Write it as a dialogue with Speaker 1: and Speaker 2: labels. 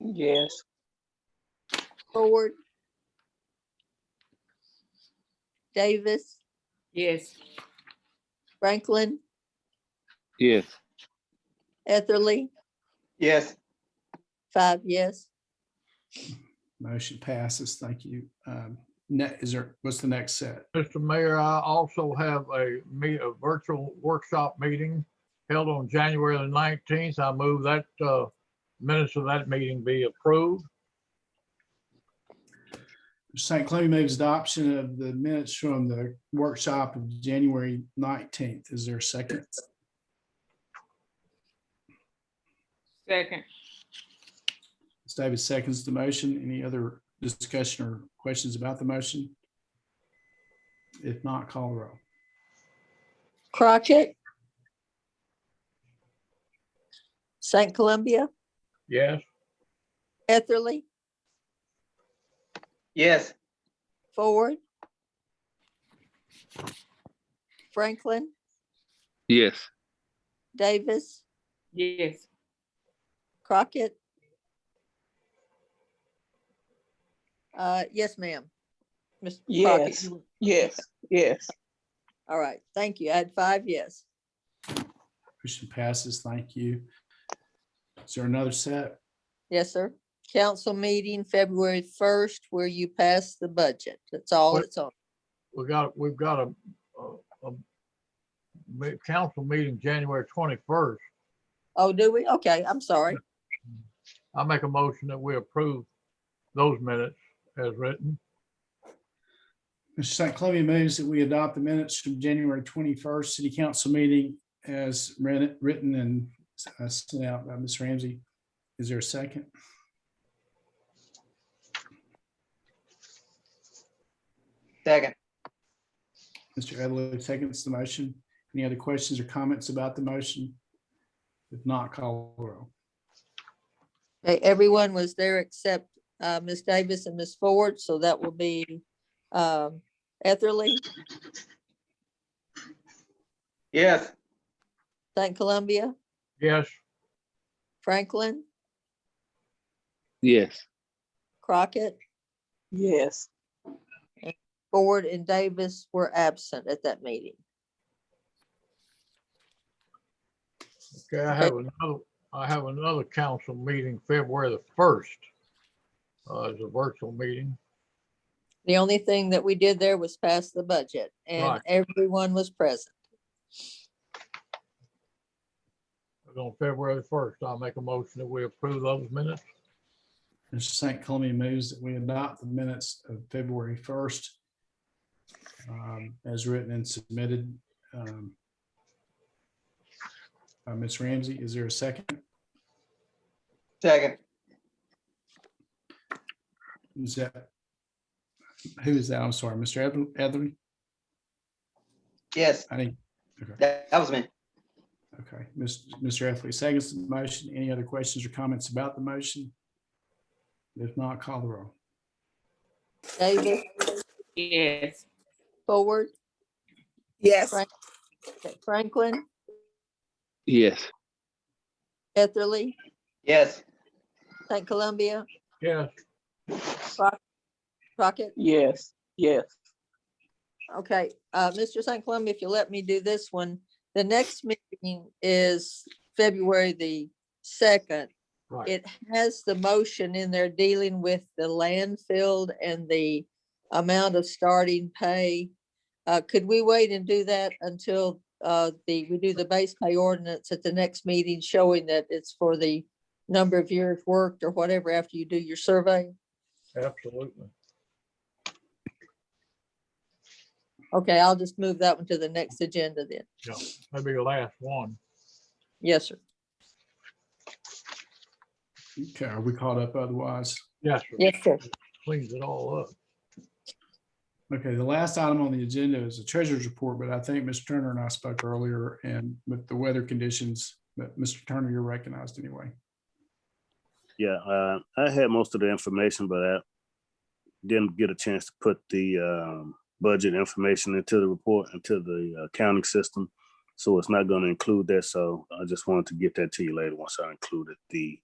Speaker 1: Yes.
Speaker 2: Ford, Davis,
Speaker 3: Yes.
Speaker 2: Franklin,
Speaker 4: Yes.
Speaker 2: Etherly,
Speaker 1: Yes.
Speaker 2: five yes.
Speaker 5: Motion passes. Thank you. Um, ne- is there, what's the next set?
Speaker 6: Mr. Mayor, I also have a me, a virtual workshop meeting held on January the nineteenth. I move that, uh, minutes of that meeting be approved.
Speaker 5: St. Cloud moves adoption of the minutes from the workshop of January nineteenth. Is there a second?
Speaker 3: Second.
Speaker 5: Ms. Davis seconds the motion. Any other discussion or questions about the motion? If not, call the roll.
Speaker 2: Crockett, St. Columbia,
Speaker 6: Yes,
Speaker 2: Etherly,
Speaker 1: Yes.
Speaker 2: Ford, Franklin,
Speaker 4: Yes.
Speaker 2: Davis,
Speaker 3: Yes.
Speaker 2: Crockett. Uh, yes, ma'am. Mr. Crockett,
Speaker 1: Yes.
Speaker 2: you-
Speaker 1: Yes. Yes.
Speaker 2: all right, thank you. I had five yes.
Speaker 5: Motion passes. Thank you. Is there another set?
Speaker 2: Yes, sir. Council meeting February first where you pass the budget. That's all
Speaker 6: What-
Speaker 2: it's on.
Speaker 6: we got, we've got a, a, a ma- council meeting January twenty-first.
Speaker 2: Oh, do we? Okay, I'm sorry.
Speaker 6: I make a motion that we approve those minutes as written.
Speaker 5: Mr. St. Columbia moves that we adopt the minutes from January twenty-first city council meeting as read- written and uh, sent out by Ms. Ramsey. Is there a second?
Speaker 1: Second.
Speaker 5: Mr. Edley seconds the motion. Any other questions or comments about the motion? If not, call the roll.
Speaker 2: Okay, Everyone was there except uh, Ms. Davis and Ms. Ford, so that will be um, Etherly,
Speaker 1: Yes.
Speaker 2: St. Columbia,
Speaker 6: Yes,
Speaker 2: Franklin,
Speaker 4: Yes.
Speaker 2: Crockett,
Speaker 1: Yes.
Speaker 2: Ford, and Davis were absent at that meeting.
Speaker 6: okay, I
Speaker 2: Okay.
Speaker 6: have another, I have another council meeting February the first. Uh, as a virtual meeting.
Speaker 2: The only thing that we did there was pass the budget and
Speaker 6: Right.
Speaker 2: everyone was present.
Speaker 6: It was on February first. I'll make a motion that we approve those minutes.
Speaker 5: Mr. St. Columbia moves that we adopt the minutes of February first um, as written and submitted um, by Ms. Ramsey. Is there a second?
Speaker 1: Second.
Speaker 5: Is that? Who is that? I'm sorry, Mr. Eth- Etherly?
Speaker 1: Yes.
Speaker 5: I didn't, okay.
Speaker 1: That, that was me.
Speaker 5: Okay, Mis- Mr. Etherly seconds the motion. Any other questions or comments about the motion? If not, call the roll.
Speaker 2: Davis,
Speaker 3: Yes.
Speaker 2: Ford,
Speaker 7: Yes.
Speaker 2: Frank- okay, Franklin,
Speaker 4: Yes.
Speaker 2: Etherly,
Speaker 1: Yes.
Speaker 2: St. Columbia,
Speaker 6: Yes,
Speaker 2: Crockett.
Speaker 1: Yes. Yes.
Speaker 2: Okay, uh, Mr. St. Columbia, if you let me do this one, the next meeting is February the second.
Speaker 6: right.
Speaker 2: It has the motion in there dealing with the landfill and the amount of starting pay. Uh, could we wait and do that until, uh, the, we do the base pay ordinance at the next meeting showing that it's for the number of years worked or whatever after you do your survey?
Speaker 6: Absolutely.
Speaker 2: Okay, I'll just move that one to the next agenda then.
Speaker 6: That'd be the last one.
Speaker 2: Yes, sir.
Speaker 5: Okay, are we caught up otherwise?
Speaker 6: Yes, sir.
Speaker 2: Yes, sir.
Speaker 6: cleans it all up.
Speaker 5: Okay, the last item on the agenda is the treasurer's report, but I think Mr. Turner and I spoke earlier and with the weather conditions, but Mr. Turner, you're recognized anyway.
Speaker 8: Yeah, uh, I had most of the information, but I didn't get a chance to put the um, budget information into the report, into the accounting system. So it's not going to include that. So I just wanted to get that to you later once I included the